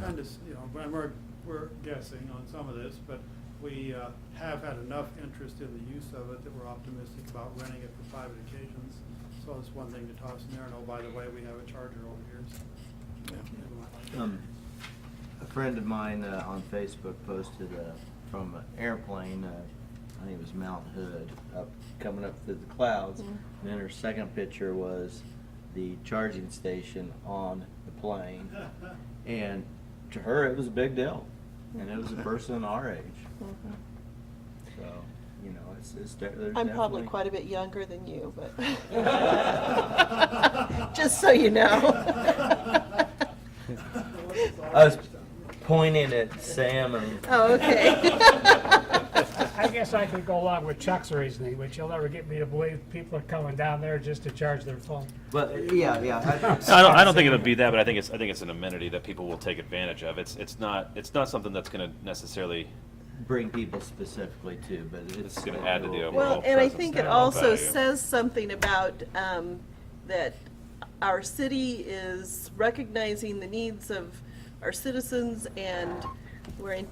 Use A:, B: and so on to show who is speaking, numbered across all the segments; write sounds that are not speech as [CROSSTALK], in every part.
A: kind of, you know, and we're, we're guessing on some of this, but we uh, have had enough interest in the use of it that we're optimistic about renting it for private occasions. So it's one thing to toss in there, and oh, by the way, we have a charger over here, so. never
B: Um,
A: mind.
B: A friend of mine uh, on Facebook posted uh, from an airplane, uh, I think it was Mount Hood, up, coming up through the clouds.
C: Mhm.
B: And then her second picture was the charging station on the plane. And to her, it was a big deal. And it was a person our age.
C: Mhm.
B: So, you know, it's, it's, de- there's
C: I'm probably
B: definitely-
C: quite a bit younger than you,
B: Um.
A: [LAUGHS]
C: but. [LAUGHS] Just so you know.
B: I was pointing at Sam and.
C: Oh,
A: [LAUGHS]
C: okay. [LAUGHS]
D: I guess I could go along with Chuck's reasoning, which you'll never get me to believe people are coming down there just to charge their phone.
B: But, yeah,
E: [LAUGHS]
B: yeah.
E: No, I don't, I don't think it would be that, but I think it's, I think it's an amenity that people will take advantage of. It's, it's not, it's not something that's gonna necessarily,
B: [LAUGHS] bring people specifically to, but it's.
E: It's gonna add to the overall-
C: Well, and I
E: presence
C: think
E: there,
C: it
E: all
C: also
E: value.
C: says something about, um, that our city is recognizing the needs of our citizens and we're in,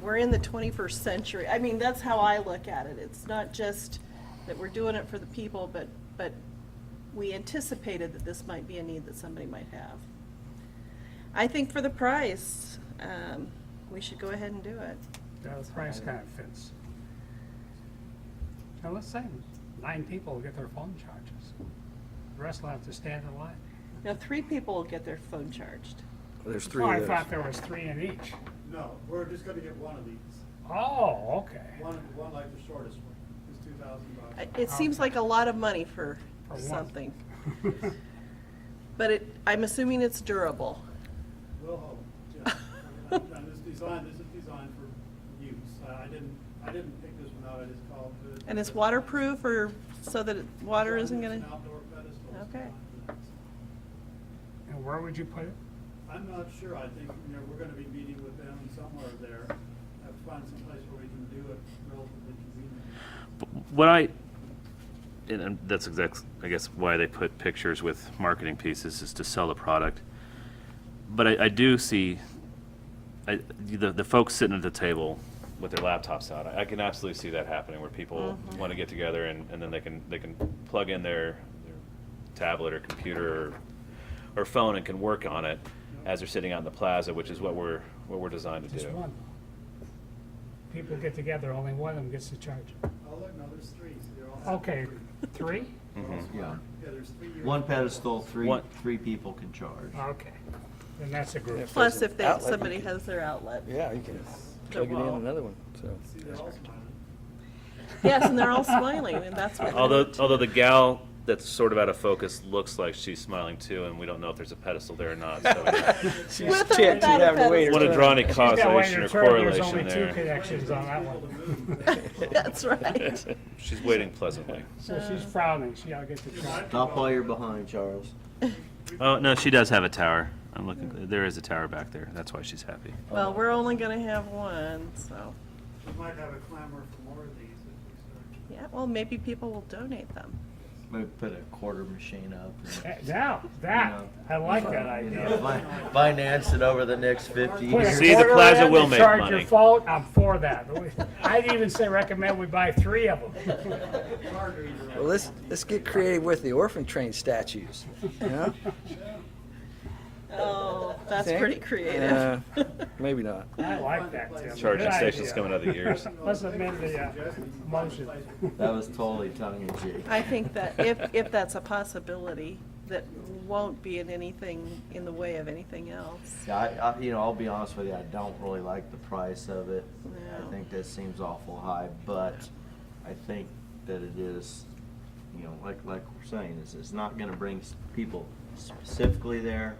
C: we're in the twenty-first century. I mean, that's how I look at it. It's not just that we're doing it for the people, but, but we anticipated that this might be a need that somebody might have. I think for the price, um, we should go ahead and do it.
D: Uh, The price kind of fits. Now, let's say nine people will get their phone charges. The rest will have to stand in line.
C: Now, three people will get their phone charged.
F: There's three
D: Oh, I
F: of those.
D: thought there was three in each.
A: No, we're just gonna get one of these,
D: Oh, okay.
A: one, one like the shortest one, is two thousand
C: I-
A: bucks.
C: It seems like a lot of money for
D: For one.
C: something, but it, I'm assuming it's durable.
A: Will hold, yeah. I mean, I'm- I'm just designed, this is designed for use. I I didn't, I didn't pick this one out, I just called it.
C: And it's waterproof or so that it- water isn't
A: It's an
C: gonna?
A: outdoor pedestal, it's
C: Okay.
A: not-
D: [LAUGHS] And where would you put it?
A: I'm not sure, I think, you know, we're gonna be meeting with them somewhere there. Have to find some place where we can do it relatively conveniently.
E: what I, and- and that's exact, I guess, why they put pictures with marketing pieces is to sell the product. But I, I do see, I, the, the folks sitting at the table with their laptops out, I, I can absolutely see that happening where people
C: Mhm.
E: want to get together and, and then they can, they can plug in their, their tablet or computer or, or phone and can work on it as they're sitting out in the plaza, which is what we're, what we're designed to do.
D: Just one. People get together, only one of them gets to charge. it.
A: Oh, look, no, there's three, so they're all.
D: Okay, three?
E: Mhm.
B: Yeah.
A: Yeah, there's three. years.
B: Mm-hmm. One pedestal, three,
E: One-
B: three people can charge.
D: Okay. Then that's a group.
C: Plus if they,
F: Outlet, you
C: somebody
F: can-
C: has their outlet.
F: Yeah, you can
C: The
F: plug it in
C: wall.
F: another one,
C: [LAUGHS]
F: so.
A: See, they're all smiling.
C: Yes, and they're all smiling and that's what.
E: Although, although the gal that's sort of out of focus looks like she's smiling too, and we don't know if there's a pedestal there or not. So I
C: With
F: She'd
C: or without a
F: have to wait
E: want
C: pedestal.
F: her
E: to
F: turn.
E: draw any
F: She's
C: [LAUGHS]
D: Yeah, wait,
E: causation or
D: your turn. There's
E: correlation
D: only two
E: there.
D: connections on that one.
C: [LAUGHS] That's right.
E: She's waiting pleasantly.
D: So she's frowning, she, I'll get the charge.
B: Stop while you're behind, Charles.
E: Oh, no, she does have a tower. I'm looking, there is a tower back there. That's why she's happy.
C: Well, we're only gonna have one, so,
A: We might have a clamor for more of these if we start.
C: yeah, well, maybe people will donate them.
B: Maybe put a quarter machine up. and,
D: Eh, Now, that, [LAUGHS] I like that
B: you know,
D: idea.
B: fi- Finance it over the next fifty
D: Put a [LAUGHS]
B: years.
E: See, the
D: quarter
E: plaza
D: in
E: will
D: to
E: make
D: Charge your
E: money.
D: phone, I'm for that. I'd even say recommend we buy three of them.
A: Harder either way.
F: Well, let's, let's get creative with the orphan train statues, you know?
C: Oh, that's
F: Think?
C: pretty creative.
F: Uh, Maybe not.
D: I like that, Tim.
E: Charging
D: Good
E: station's
D: idea.
E: coming out of the ears.
D: Let's amend the uh, motion.
B: That was totally tongue in cheek.
C: [LAUGHS] I think that if, if that's a possibility, that won't be in anything, in the way of anything else.
B: [LAUGHS] Yeah, I, I, you know, I'll be honest with you, I don't really like the price of it.
C: No.
B: I think that seems awful high, but I think that it is, you know, like, like we're saying, it's, it's not gonna bring s- people specifically there,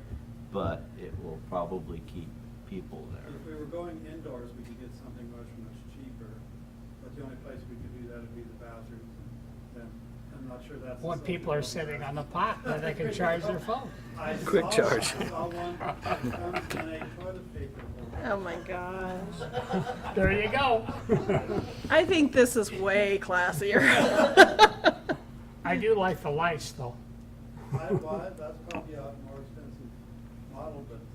B: but it will probably keep people
A: If we
B: there.
A: were going indoors, we could get something much, much cheaper, but the only place we could do that would be the bathrooms, and I'm not sure that's.
D: When people are sitting on the pot, then they can charge their phone.
A: [LAUGHS] I
F: Quick
A: saw-
F: charge.
A: I saw
C: [LAUGHS]
A: one, that comes in a toilet paper holder.
C: Oh my gosh.
D: There you go.
C: I think this is way classier. [LAUGHS]
D: I do like the lights, though.
A: I, why, that's probably a more expensive model, but uh,